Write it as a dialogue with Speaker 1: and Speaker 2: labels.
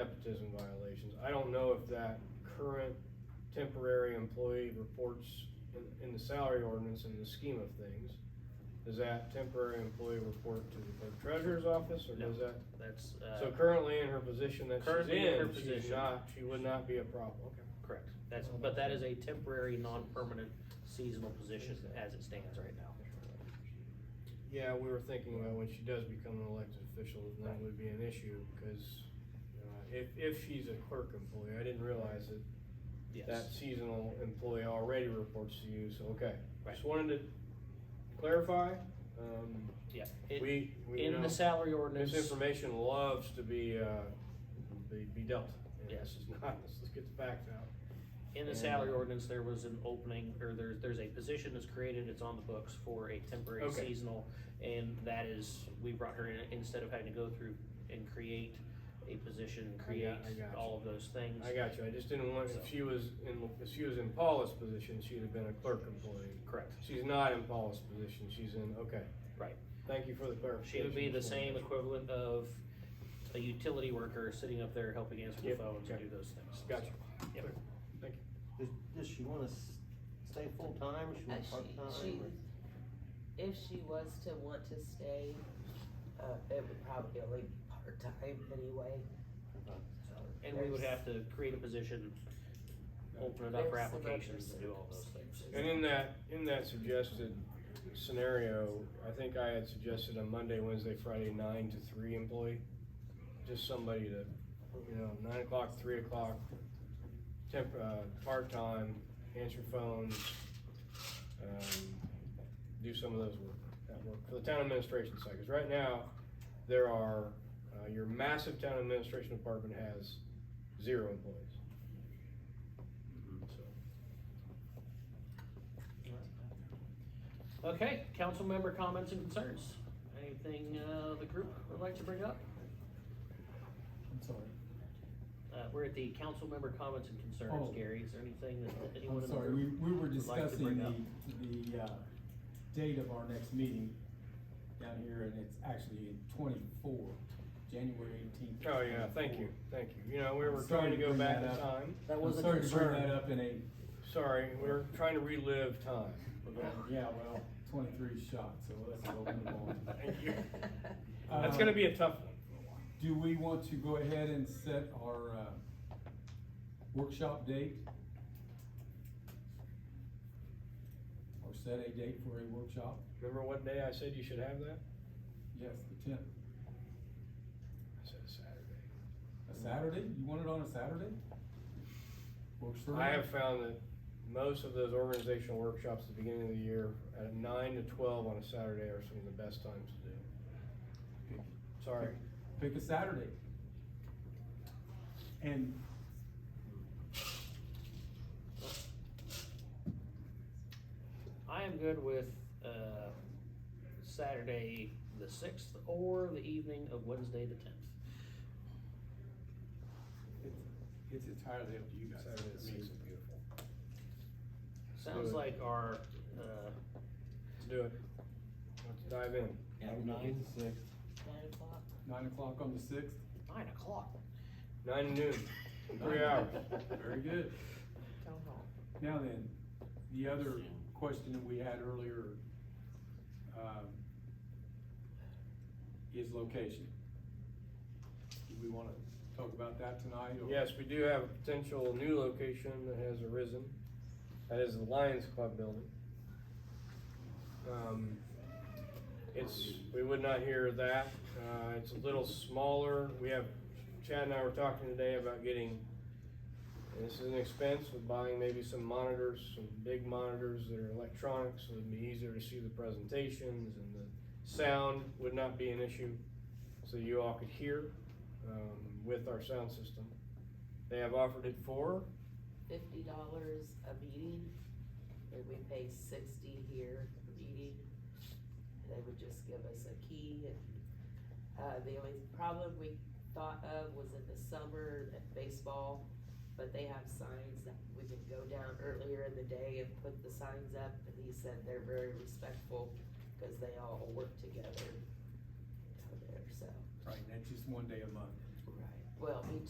Speaker 1: nepotism violations. I don't know if that current temporary employee reports in, in the salary ordinance in the scheme of things. Does that temporary employee report to the clerk treasurer's office or does that?
Speaker 2: That's,
Speaker 1: So
Speaker 2: uh,
Speaker 1: currently in her position that she's
Speaker 2: Currently in her
Speaker 1: in, she's
Speaker 2: position.
Speaker 1: not, she would not be a problem, okay.
Speaker 2: correct. That's, but that is a temporary, non-permanent seasonal position as it stands right now.
Speaker 1: Yeah, we were thinking about when she does become an elected official, then that would be an issue, cause, you know, if, if she's a clerk employee, I didn't realize that that
Speaker 2: Yes.
Speaker 1: seasonal employee already reports to you, so, okay.
Speaker 2: Right.
Speaker 1: Just wanted to clarify, um,
Speaker 2: Yeah. It-
Speaker 1: we, we, you
Speaker 2: In
Speaker 1: know,
Speaker 2: the salary
Speaker 1: this
Speaker 2: ordinance,
Speaker 1: information loves to be, uh, be, be dealt. And
Speaker 2: Yes.
Speaker 1: This is not, let's get the facts out. uh,
Speaker 2: in the salary ordinance, there was an opening, or there's, there's a position that's created, it's on the books for a temporary
Speaker 1: Okay.
Speaker 2: seasonal. And that is, we brought her in, instead of having to go through and create a position,
Speaker 1: I
Speaker 2: create
Speaker 1: got- I got
Speaker 2: all of those things.
Speaker 1: I got you, I just didn't want,
Speaker 2: So.
Speaker 1: if she was in, if she was in Paula's position, she'd have been a clerk employee.
Speaker 2: Correct.
Speaker 1: She's not in Paula's position, she's in, okay.
Speaker 2: Right.
Speaker 1: Thank you for the
Speaker 2: She
Speaker 1: clarification.
Speaker 2: would be the same equivalent of a utility worker sitting up there helping answer the
Speaker 1: Yep,
Speaker 2: phones and
Speaker 1: okay.
Speaker 2: do those things.
Speaker 1: Gotcha.
Speaker 2: Yep.
Speaker 3: Does, does she wanna s- stay full-time, or she
Speaker 4: Uh,
Speaker 3: want
Speaker 4: she, she,
Speaker 3: part-time?
Speaker 4: if she was to want to stay, uh, it would probably only be part-time anyway,
Speaker 3: or-
Speaker 4: so.
Speaker 2: And we would
Speaker 4: there's-
Speaker 2: have to create a position, open it up for
Speaker 4: there's some
Speaker 2: applications
Speaker 4: other
Speaker 2: and do all those things.
Speaker 4: circumstances.
Speaker 1: And in that, in that suggested scenario, I think I had suggested a Monday, Wednesday, Friday, nine to three employee. Just somebody to, you know, nine o'clock, three o'clock, temp, uh, part-time, answer phones, um, do some of those work, that work for the town administration side, 'cause right now, there are, uh, your massive town administration department has zero employees. So,
Speaker 2: Okay, council member comments and concerns. Anything, uh, the group would like to bring up?
Speaker 5: I'm sorry.
Speaker 2: Uh, we're at the council member comments and
Speaker 5: Oh.
Speaker 2: concerns, Gary. Is there anything that anyone
Speaker 5: I'm
Speaker 2: in the
Speaker 5: sorry, we,
Speaker 2: group?
Speaker 5: we were
Speaker 2: would like to bring
Speaker 5: discussing
Speaker 2: up.
Speaker 5: the, the, uh, date of our next meeting down here, and it's actually in twenty-four, January eighteenth.
Speaker 1: Oh, yeah, thank you, thank you. You know, we were trying to go
Speaker 5: Sorry to bring
Speaker 1: back in
Speaker 5: that up.
Speaker 1: time.
Speaker 5: That was a concern. Sorry to bring that up in a,
Speaker 1: Sorry, we were trying to relive time.
Speaker 5: yeah, well, twenty-three shot, so let's go move on.
Speaker 1: Thank you.
Speaker 5: Uh,
Speaker 1: That's gonna be a tough one.
Speaker 5: Do we want to go ahead and set our, uh, workshop date? Or set a date for a workshop?
Speaker 1: Remember what day I said you should have that?
Speaker 5: Yes, the tenth.
Speaker 1: I said Saturday.
Speaker 5: A Saturday? You want it on a Saturday? Works for me.
Speaker 1: I have found that most of those organizational workshops at the beginning of the year, at nine to twelve on a Saturday are some of the best times to do. Sorry,
Speaker 5: Pick a Saturday. And
Speaker 2: I am good with, uh, Saturday the sixth or the evening of Wednesday the tenth.
Speaker 5: it's, it's entirely up to you guys.
Speaker 1: Saturday the
Speaker 5: I mean,
Speaker 1: sixth is beautiful.
Speaker 2: Sounds
Speaker 1: Good.
Speaker 2: like our, uh,
Speaker 1: Let's do it. Let's dive in.
Speaker 3: Nine, six.
Speaker 4: Nine o'clock.
Speaker 5: Nine o'clock on the sixth,
Speaker 2: nine o'clock.
Speaker 1: Nine to noon, three hours.
Speaker 5: very good.
Speaker 4: Go home.
Speaker 5: Now then, the other question that we had earlier, um, is location. Do we wanna talk about that tonight? or-
Speaker 1: Yes, we do have a potential new location that has arisen. That is the Lions Club building. Um, It's, we would not hear that. Uh, it's a little smaller. We have, Chad and I were talking today about getting, and this is an expense of buying maybe some monitors, some big monitors that are electronic, so it'd be easier to see the presentations and the sound would not be an issue. So you all could hear, um, with our sound system. They have offered it for,
Speaker 4: Fifty dollars a meeting, and we pay sixty here a meeting. They would just give us a key and, uh, the only problem we thought of was in the summer at baseball, but they have signs that we can go down earlier in the day and put the signs up, and he said they're very respectful, cause they all work together down there, so.
Speaker 5: Right, and that's just one day a month.
Speaker 4: Right. Well, we